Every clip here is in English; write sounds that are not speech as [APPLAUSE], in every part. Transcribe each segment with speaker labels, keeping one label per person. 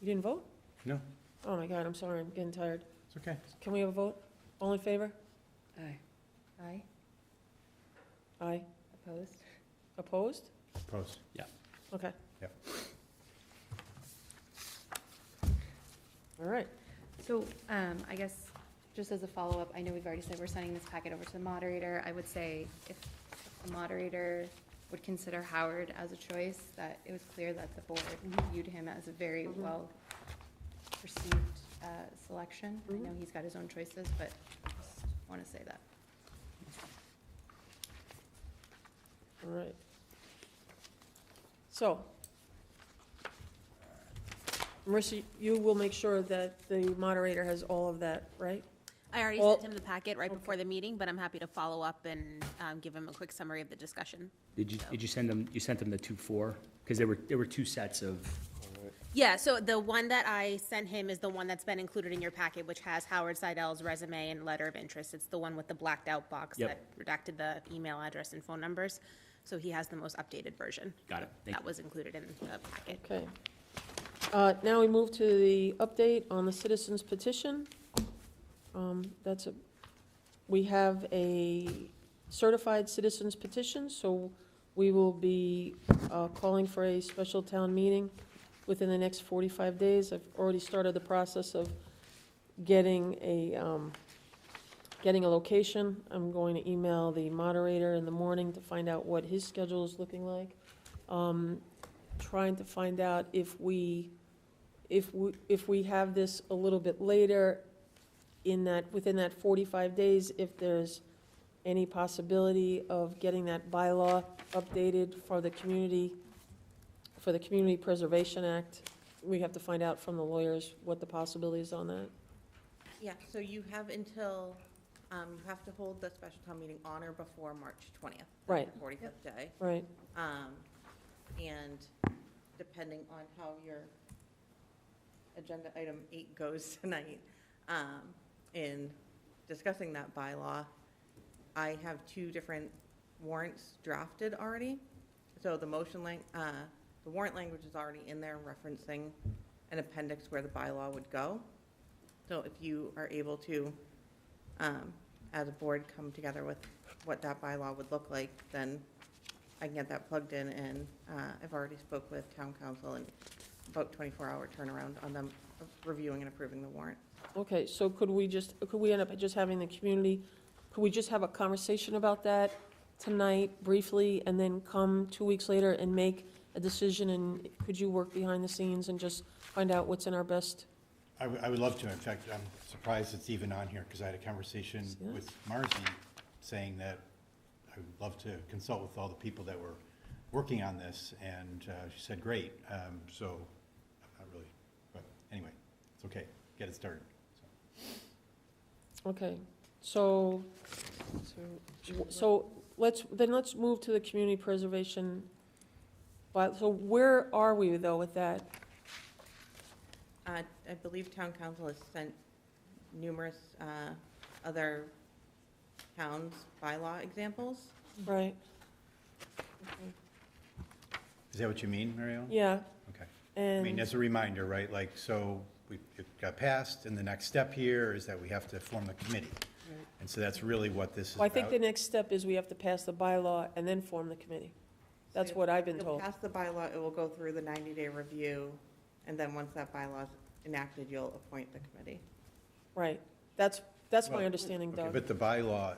Speaker 1: You didn't vote?
Speaker 2: No,
Speaker 1: Oh my God, I'm sorry, I'm getting tired.
Speaker 2: it's okay.
Speaker 1: Can we have a vote? All in favor?
Speaker 3: Aye. Aye,
Speaker 1: Aye.
Speaker 3: opposed?
Speaker 1: Opposed?
Speaker 2: Post. Yeah.
Speaker 1: Okay.
Speaker 2: Yep.
Speaker 1: All right.
Speaker 3: So, um, I guess, just as a follow-up, I know we've already said we're sending this packet over to the moderator. I would say if the moderator would consider Howard as a choice, that it was clear that the board viewed him as a very
Speaker 1: Mhm.
Speaker 3: well perceived, uh, selection. I know
Speaker 1: Mhm.
Speaker 3: he's got his own choices, but just wanna say that.
Speaker 1: All right. So, Marissa, you will make sure that the moderator has all of that, right?
Speaker 4: I already
Speaker 1: Well-
Speaker 4: sent him the packet right before the meeting, but I'm happy to follow up and um, give him a quick summary of the discussion.
Speaker 5: Did you, did you send them, you sent them the two four? Because there were, there were two sets of,
Speaker 4: Yeah, so the one that I sent him is the one that's been included in your packet, which has Howard Seidel's resume and letter of interest. It's the one with the blacked out box
Speaker 5: Yep.
Speaker 4: that redacted the email address and phone numbers. So he has the most updated version.
Speaker 5: got it, thank
Speaker 4: That
Speaker 5: you.
Speaker 4: was included in the packet.
Speaker 1: Okay. Uh, Now we move to the update on the citizens petition. Um, That's a, we have a certified citizens petition, so we will be uh, calling for a special town meeting within the next 45 days. I've already started the process of getting a, um, getting a location. I'm going to email the moderator in the morning to find out what his schedule is looking like. Um, trying to find out if we, if we, if we have this a little bit later in that, within that forty-five days, if there's any possibility of getting that bylaw updated for the community, for the Community Preservation Act. We have to find out from the lawyers what the possibilities on that.
Speaker 6: Yeah, so you have until, um, you have to hold the special town meeting on or before March twentieth.
Speaker 1: Right.
Speaker 6: Forty-fifth day.
Speaker 1: Right,
Speaker 6: Um, and depending on how your agenda item eight goes [LAUGHS] tonight, um, in discussing that bylaw, I have two different warrants drafted already. So the motion lang, uh, the warrant language is already in there referencing an appendix where the bylaw would go. So if you are able to, um, as a board, come together with what that bylaw would look like, then I can get that plugged in, and uh, I've already spoke with town council and about 24-hour turnaround on them reviewing and approving the warrant.
Speaker 1: okay, so could we just, could we end up just having the community, could we just have a conversation about that tonight briefly, and then come two weeks later and make a decision, and could you work behind the scenes and just find out what's in our best?
Speaker 2: I would, I would love to. In fact, I'm surprised it's even on here because I had a conversation
Speaker 1: Yeah.
Speaker 2: with Marcy saying that I would love to consult with all the people that were working on this and uh, she said, great. Um, So I'm not really, but anyway, it's okay. Get it started. So,
Speaker 1: Okay, so, so- so let's, then let's move to the community preservation. But, so where are we though with that?
Speaker 6: Uh, I believe town council has sent numerous uh, other towns bylaw examples.
Speaker 1: Right,
Speaker 2: Is that what you mean, Mary Ellen?
Speaker 1: yeah,
Speaker 2: Okay. I mean,
Speaker 1: and,
Speaker 2: as a reminder, right, like, so we, it got passed, and the next step here is that we have to form the committee. And so that's really what this is
Speaker 1: well, I
Speaker 2: about.
Speaker 1: think the next step is we have to pass the bylaw and then form the committee. That's what I've been
Speaker 6: You'll
Speaker 1: told.
Speaker 6: pass the bylaw, it will go through the 90-day review, and then once that bylaw's enacted, you'll appoint the committee.
Speaker 1: Right, that's, that's my
Speaker 2: Well,
Speaker 1: understanding,
Speaker 2: Okay,
Speaker 1: Doug.
Speaker 2: But the bylaw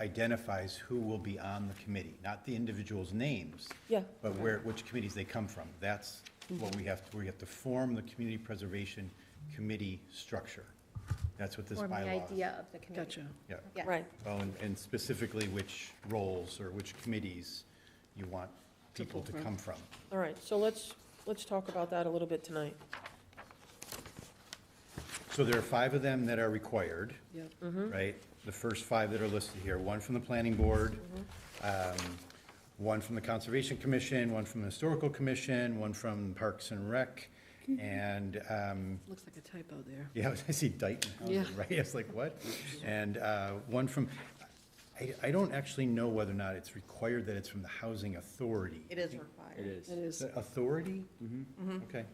Speaker 2: identifies who will be on the committee, not the individual's names,
Speaker 1: Yeah,
Speaker 2: but where, which committees they come from. That's what we have, to we have to form the community preservation committee structure. That's what this
Speaker 3: Form the
Speaker 2: bylaw is.
Speaker 3: idea of the committee. Gotcha.
Speaker 2: Yeah.
Speaker 3: Yeah.
Speaker 1: right,
Speaker 2: Well, and- and specifically which roles or which committees you want people to come from.
Speaker 1: all right, so let's, let's talk about that a little bit tonight.
Speaker 2: So there are five of them that are required.
Speaker 1: Mm.
Speaker 2: Right? The first five that are listed here, one from the planning board, um, one from the conservation commission, one from the historical commission, one from Parks and Rec, and, um, [LAUGHS]
Speaker 7: Looks like a typo there.
Speaker 2: yeah, I see Dayton, Housing,
Speaker 7: Yeah.
Speaker 2: right? I was like, what? And uh, one from, I, I don't actually know whether or not it's required that it's from the housing authority.
Speaker 6: It is required.
Speaker 5: It is.
Speaker 7: It is.
Speaker 2: Is it Authority? Mm-hmm. Okay,